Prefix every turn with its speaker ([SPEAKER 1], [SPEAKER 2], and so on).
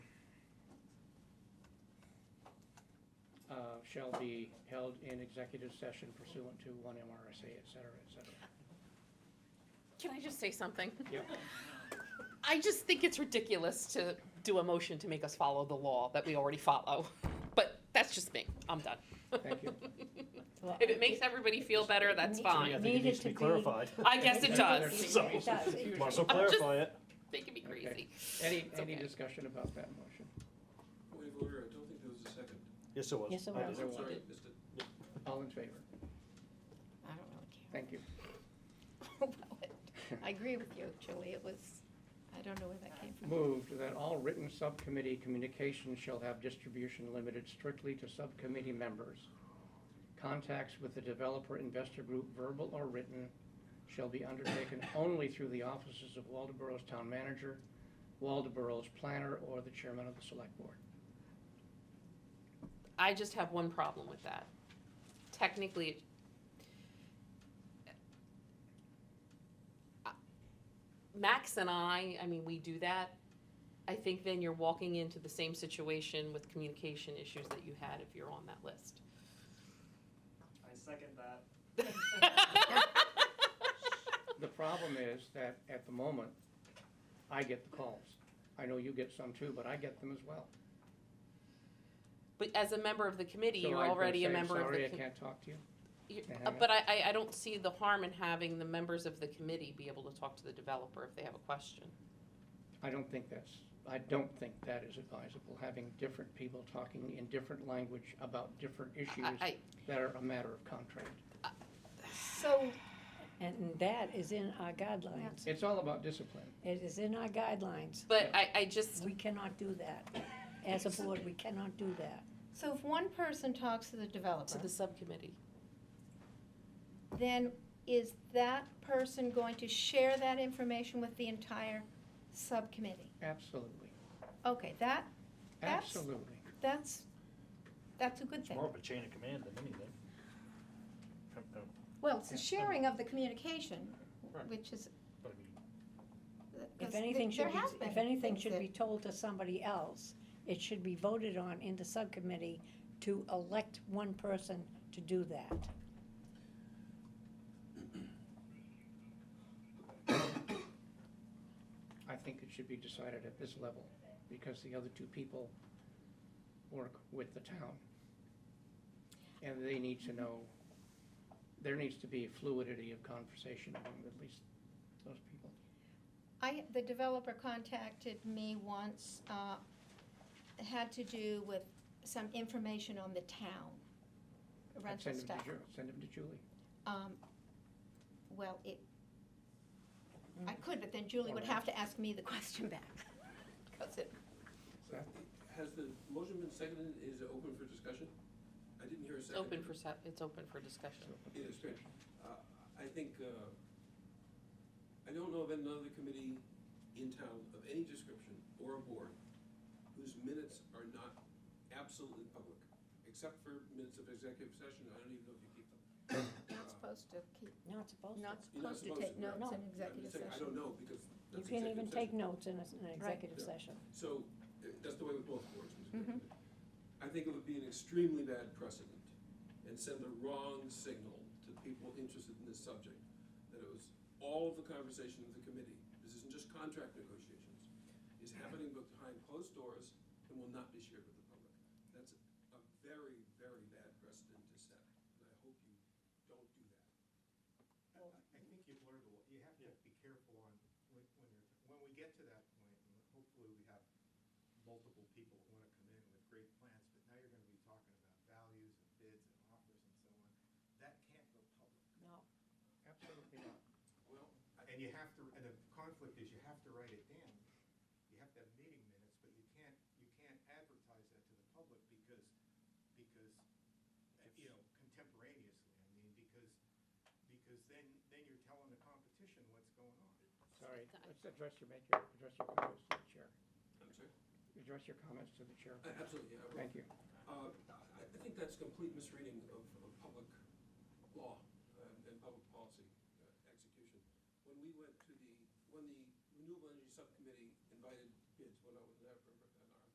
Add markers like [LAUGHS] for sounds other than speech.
[SPEAKER 1] uh, shall be held in executive session pursuant to one MRSA, et cetera, et cetera.
[SPEAKER 2] Can I just say something?
[SPEAKER 1] Yep.
[SPEAKER 2] I just think it's ridiculous to do a motion to make us follow the law that we already follow. But that's just me. I'm done.
[SPEAKER 1] Thank you.
[SPEAKER 3] Well,
[SPEAKER 2] If it makes everybody feel better, that's
[SPEAKER 3] It
[SPEAKER 4] I
[SPEAKER 2] fine.
[SPEAKER 4] think it
[SPEAKER 3] Needed
[SPEAKER 4] needs to
[SPEAKER 3] to
[SPEAKER 4] be
[SPEAKER 3] be-
[SPEAKER 4] [LAUGHS] clarified.
[SPEAKER 2] I guess it does.
[SPEAKER 4] So-
[SPEAKER 3] It does.
[SPEAKER 4] Marshall,
[SPEAKER 2] I'm just-
[SPEAKER 4] clarify it.
[SPEAKER 2] They can be crazy.
[SPEAKER 1] Any, any
[SPEAKER 2] okay.
[SPEAKER 1] discussion about that motion?
[SPEAKER 5] Point of order, I don't think there was a second.
[SPEAKER 4] Yes, it was.
[SPEAKER 3] Yes, it
[SPEAKER 4] I
[SPEAKER 3] was.
[SPEAKER 4] did.
[SPEAKER 1] There
[SPEAKER 5] I'm
[SPEAKER 1] was.
[SPEAKER 5] sorry, missed it.
[SPEAKER 1] All in favor?
[SPEAKER 3] I don't really [LAUGHS]
[SPEAKER 1] Thank you.
[SPEAKER 3] care about it. I agree with you, Julie, it was, I don't know where that came from.
[SPEAKER 1] Moved that all written subcommittee communications shall have distribution limited strictly to subcommittee members. Contacts with the developer investor group, verbal or written, shall be
[SPEAKER 3] [COUGHS]
[SPEAKER 1] undertaken only through the offices of Waldeboro's town manager, Waldeboro's planner, or the chairman of the select board.
[SPEAKER 2] I just have one problem with that. Technically, it- I- uh, Max and I, I mean, we do that. I think then you're walking into the same situation with communication issues that you had if you're on that [LAUGHS] list.
[SPEAKER 6] I second that.
[SPEAKER 1] The problem is that at the moment, I get the calls. I know you get some too, but I get them as well.
[SPEAKER 2] But as a member of the committee,
[SPEAKER 1] So
[SPEAKER 2] you're
[SPEAKER 1] I can
[SPEAKER 2] already a
[SPEAKER 1] say,
[SPEAKER 2] member of
[SPEAKER 1] Sorry,
[SPEAKER 2] the.
[SPEAKER 1] I
[SPEAKER 2] com-
[SPEAKER 1] can't talk to you.
[SPEAKER 2] you-
[SPEAKER 1] can't
[SPEAKER 2] uh,
[SPEAKER 1] have it.
[SPEAKER 2] But I, I, I don't see the harm in having the members of the committee be able to talk to the developer if they have a question.
[SPEAKER 1] I don't think that's, I don't think that is advisable, having different people talking in different language about different issues
[SPEAKER 2] I, I,
[SPEAKER 1] that are a matter of contract.
[SPEAKER 3] So.
[SPEAKER 7] And that is in our guidelines.
[SPEAKER 1] It's all about discipline.
[SPEAKER 7] It is in our guidelines.
[SPEAKER 2] but I, I just,
[SPEAKER 7] We cannot do that. As a board, we cannot do that.
[SPEAKER 3] So if one person talks to the
[SPEAKER 2] to
[SPEAKER 3] developer,
[SPEAKER 2] the subcommittee.
[SPEAKER 3] then is that person going to share that information with the entire subcommittee?
[SPEAKER 1] Absolutely,
[SPEAKER 3] Okay, that, That's-
[SPEAKER 1] absolutely.
[SPEAKER 3] that's, that's a good
[SPEAKER 4] It's more
[SPEAKER 3] thing.
[SPEAKER 4] of a chain of command than anything. Um, um,
[SPEAKER 3] Well, it's the sharing of the communication,
[SPEAKER 4] Right.
[SPEAKER 3] which is.
[SPEAKER 4] But I mean,
[SPEAKER 7] If
[SPEAKER 3] 'cause
[SPEAKER 7] anything
[SPEAKER 3] there
[SPEAKER 7] should be,
[SPEAKER 3] has been
[SPEAKER 7] if anything
[SPEAKER 3] things
[SPEAKER 7] should
[SPEAKER 3] that-
[SPEAKER 7] be told to somebody else, it should be voted on in the subcommittee to elect one person to do that.
[SPEAKER 1] I think it should be decided at this level, because the other two people work with the town. And they need to know, there needs to be fluidity of conversation among at least those people.
[SPEAKER 3] I, the developer contacted me once, uh, it had to do with some information on the town,
[SPEAKER 1] I'd
[SPEAKER 3] rental
[SPEAKER 1] send them to
[SPEAKER 3] stuff.
[SPEAKER 1] Ju- Send them to Julie.
[SPEAKER 3] Um, Well, it, I could, but then Julie would have to ask me the question back, 'cause it,
[SPEAKER 1] Seth?
[SPEAKER 5] Has the motion been seconded, is it open for discussion? I didn't hear a
[SPEAKER 2] It's
[SPEAKER 5] second.
[SPEAKER 2] open for, se- it's open for discussion.
[SPEAKER 5] It is, great. Uh, I think, uh, I don't know of another committee in town of any description or a board whose minutes are not absolutely public, except for minutes of executive session, I don't even know if you keep them.
[SPEAKER 3] not supposed to keep,
[SPEAKER 7] Not supposed
[SPEAKER 3] not
[SPEAKER 5] You're not
[SPEAKER 3] supposed to take
[SPEAKER 5] right?
[SPEAKER 3] notes in
[SPEAKER 5] Uh, I'm just
[SPEAKER 3] executive
[SPEAKER 5] saying, I don't
[SPEAKER 3] session.
[SPEAKER 5] know, because
[SPEAKER 7] You
[SPEAKER 5] that's
[SPEAKER 7] can't even
[SPEAKER 5] executive session.
[SPEAKER 7] take notes in a- in an executive
[SPEAKER 5] Yeah.
[SPEAKER 7] session.
[SPEAKER 5] So, uh, that's the way with both boards. Ms.
[SPEAKER 3] Mhm.
[SPEAKER 5] Griffin. I think it would be an extremely bad precedent and send the wrong signal to people interested in this subject, that it was all of the conversation of the committee, this isn't just contract negotiations, is happening behind closed doors and will not be shared with the public. That's a very, very bad precedent to set, and I hope you don't do that.
[SPEAKER 8] I I think you've learned a lot, you have to be careful on, when, when you're, when we get to that point, and hopefully we have multiple people who wanna come in with great plans, but now you're gonna be talking about values and bids and offers and so on, that can't go public.
[SPEAKER 1] Absolutely not.
[SPEAKER 5] Well,
[SPEAKER 8] And you have to, and the conflict is you have to write it down, you have to have meeting minutes, but you can't, you can't advertise that to the public because, because, uh, you know, contemporaneously, I mean, because, because then, then you're telling the competition what's going on.
[SPEAKER 1] Sorry, let's address your, make your, address your comments to the chair.
[SPEAKER 5] I'm sorry,
[SPEAKER 1] Address your comments to the chair.
[SPEAKER 5] Uh, absolutely, yeah, I will.
[SPEAKER 1] Thank you.
[SPEAKER 5] Uh, I I think that's complete misreading of, of public law um, and public policy uh, execution. When we went to the, when the Renewable Energy Subcommittee invited uh,